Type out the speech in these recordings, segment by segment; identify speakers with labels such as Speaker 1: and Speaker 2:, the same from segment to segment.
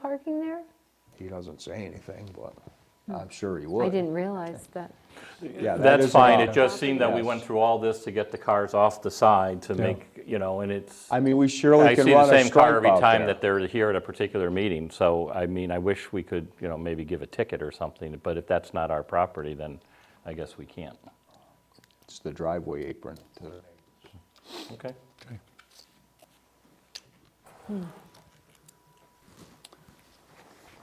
Speaker 1: parking there?
Speaker 2: He doesn't say anything, but I'm sure he would.
Speaker 1: Hmm. I didn't realize that.
Speaker 2: Yeah, that
Speaker 3: That's
Speaker 2: is
Speaker 3: fine,
Speaker 2: allowed.
Speaker 3: it just seemed that we went through all this to get the cars off the side to make, you know, and it's,
Speaker 2: I mean, we surely
Speaker 3: I
Speaker 2: can
Speaker 3: see the
Speaker 2: run a
Speaker 3: same
Speaker 2: stripe
Speaker 3: car every
Speaker 2: out
Speaker 3: time
Speaker 2: there.
Speaker 3: that they're here at a particular meeting, so, I mean, I wish we could, you know, maybe give a ticket or something, but if that's not our property, then I guess we can't.
Speaker 2: It's the driveway apron. to-
Speaker 3: Okay.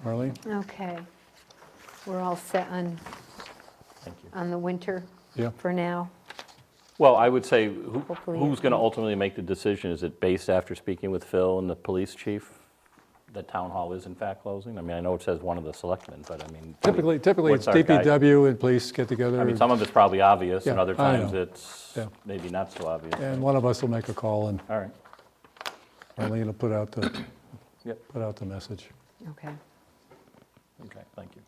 Speaker 4: Marlene?
Speaker 1: Okay. We're all set on,
Speaker 3: Thank you.
Speaker 1: on the winter
Speaker 4: Yeah.
Speaker 1: for now.
Speaker 3: Well, I would say, who-
Speaker 1: Hopefully
Speaker 3: who's
Speaker 1: it
Speaker 3: going to ultimately make the decision? Is it based after speaking with Phil and the police chief, that town hall is in fact closing? I mean, I know it says one of the selectmen, but I mean.
Speaker 4: Typically, typically it's
Speaker 3: what's our guide-
Speaker 4: DPW and police get together,
Speaker 3: I mean, some of it's probably obvious, and
Speaker 4: Yeah,
Speaker 3: other
Speaker 4: I
Speaker 3: times
Speaker 4: know.
Speaker 3: it's
Speaker 4: Yeah.
Speaker 3: maybe not so obvious.
Speaker 4: and one of us will make a call, and
Speaker 3: All right,
Speaker 4: Marlene will put out the,
Speaker 3: yep,
Speaker 4: put out the message.
Speaker 1: Okay.
Speaker 3: okay, thank you.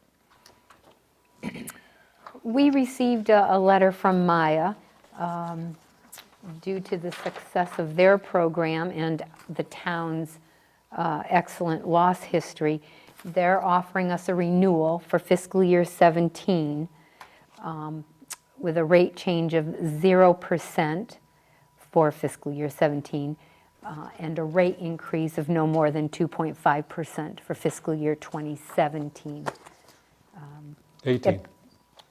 Speaker 1: We received a, a letter from Maya um, due to the success of their program and the town's uh, excellent loss history. They're offering us a renewal for fiscal year 17 um, with a rate change of 0% for fiscal year 17 uh, and a rate increase of no more than 2.5% for fiscal year 2017.
Speaker 4: 18.
Speaker 1: Yep.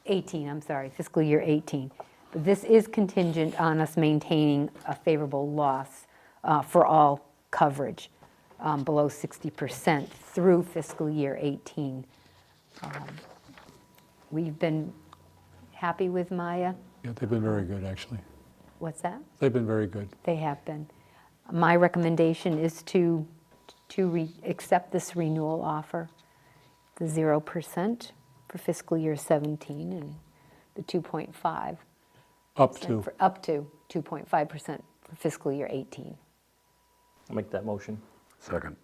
Speaker 1: 18, I'm sorry, fiscal year 18. But this is contingent on us maintaining a favorable loss uh, for all coverage um, below 60% through fiscal year 18. Um, We've been happy with Maya.
Speaker 4: Yeah, they've been very good, actually.
Speaker 1: What's that?
Speaker 4: They've been very good.
Speaker 1: They have been. My recommendation is to, to re, accept this renewal offer, the 0% for fiscal year 17 and the 2.5.
Speaker 4: Up to,
Speaker 1: for- Up to 2.5% for fiscal year 18.
Speaker 3: I'll make that motion.
Speaker 5: Second.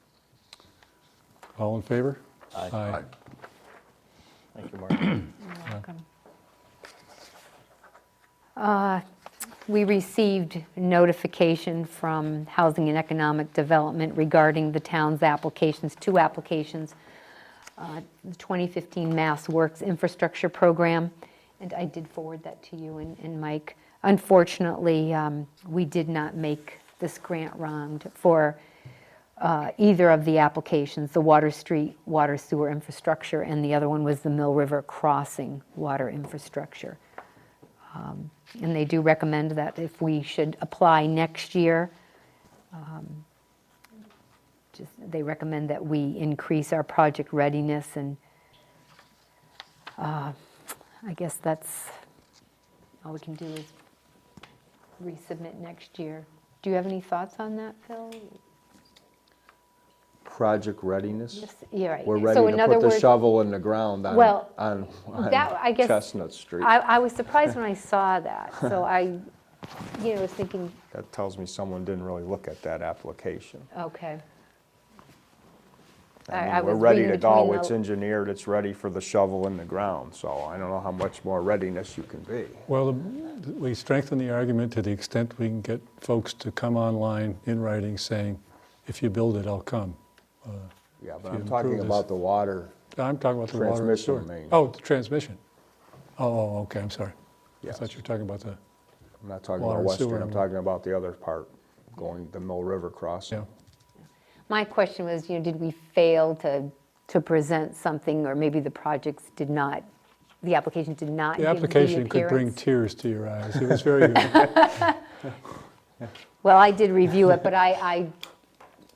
Speaker 4: all in favor?
Speaker 3: Aye.
Speaker 4: Aye.
Speaker 3: Thank you, Mark.
Speaker 1: Uh, We received notification from Housing and Economic Development regarding the town's applications, two applications, uh, the 2015 Mass Works Infrastructure Program, and I did forward that to you and- and Mike. Unfortunately, um, we did not make this grant round for uh, either of the applications, the Water Street Water Sewer Infrastructure, and the other one was the Mill River Crossing Water Infrastructure. Um, And they do recommend that if we should apply next year, um, just, they recommend that we increase our project readiness, and uh, I guess that's, all we can do is resubmit next year. Do you have any thoughts on that, Phil?
Speaker 2: Project readiness?
Speaker 1: Yes, You're right.
Speaker 2: We're
Speaker 1: So
Speaker 2: ready
Speaker 1: in
Speaker 2: to
Speaker 1: other
Speaker 2: put the
Speaker 1: words,
Speaker 2: shovel in the ground on,
Speaker 1: Well,
Speaker 2: on on
Speaker 1: that- I guess-
Speaker 2: Chestnut Street.
Speaker 1: I, I was surprised when I saw that, so I, you know, was thinking,
Speaker 2: That tells me someone didn't really look at that application.
Speaker 1: okay. I-
Speaker 2: I mean,
Speaker 1: I
Speaker 2: We're
Speaker 1: was
Speaker 2: ready
Speaker 1: reading
Speaker 2: to go,
Speaker 1: between the-
Speaker 2: it's engineered, it's ready for the shovel in the ground, so I don't know how much more readiness you can be.
Speaker 4: Well, the- we strengthen the argument to the extent we can get folks to come online in writing saying, if you build it, I'll come.
Speaker 2: Yeah,
Speaker 4: you
Speaker 2: but I'm
Speaker 4: improve
Speaker 2: talking
Speaker 4: this-
Speaker 2: about the water,
Speaker 4: I'm talking about the water and
Speaker 2: Transmission
Speaker 4: sewer.
Speaker 2: main.
Speaker 4: Oh, the transmission. Oh, oh, okay, I'm sorry. I thought
Speaker 2: Yes.
Speaker 4: you were talking about the,
Speaker 2: I'm not talking about
Speaker 4: Water,
Speaker 2: Western,
Speaker 4: sewer,
Speaker 2: I'm
Speaker 4: and-
Speaker 2: talking about the other part, going the Mill River crossing.
Speaker 4: yeah.
Speaker 1: My question was, you know, did we fail to, to present something, or maybe the projects did not, the application did not
Speaker 4: The
Speaker 1: give the
Speaker 4: application could bring
Speaker 1: appearance?
Speaker 4: tears to your eyes. It was very Uh, good.
Speaker 1: Well, I did review it, but I, I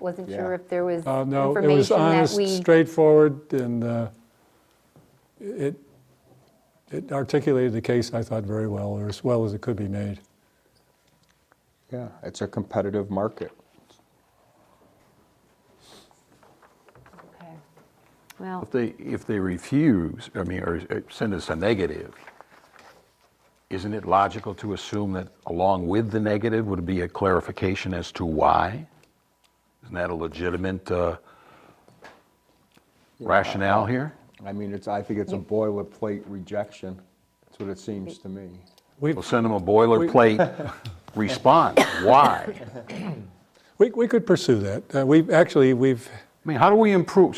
Speaker 1: wasn't sure
Speaker 2: Yeah.
Speaker 1: if there was
Speaker 4: Uh, No, it was
Speaker 1: information that
Speaker 4: honest,
Speaker 1: we.
Speaker 4: straightforward, and uh, it it articulated the case, I thought, very well, or as well as it could be made.
Speaker 2: Yeah, it's a competitive market.
Speaker 1: Okay. Well,
Speaker 5: If they, if they refuse, I mean, or uh, send us a negative, isn't it logical to assume that along with the negative would be a clarification as to why? Isn't that a legitimate uh, rationale here?
Speaker 2: I mean, it's, I think it's a boilerplate rejection, that's what it seems to me.
Speaker 4: We
Speaker 5: We'll send them a boilerplate response. Why?
Speaker 4: we we could pursue that. Uh, We, actually, we've
Speaker 5: I mean, how do we improve?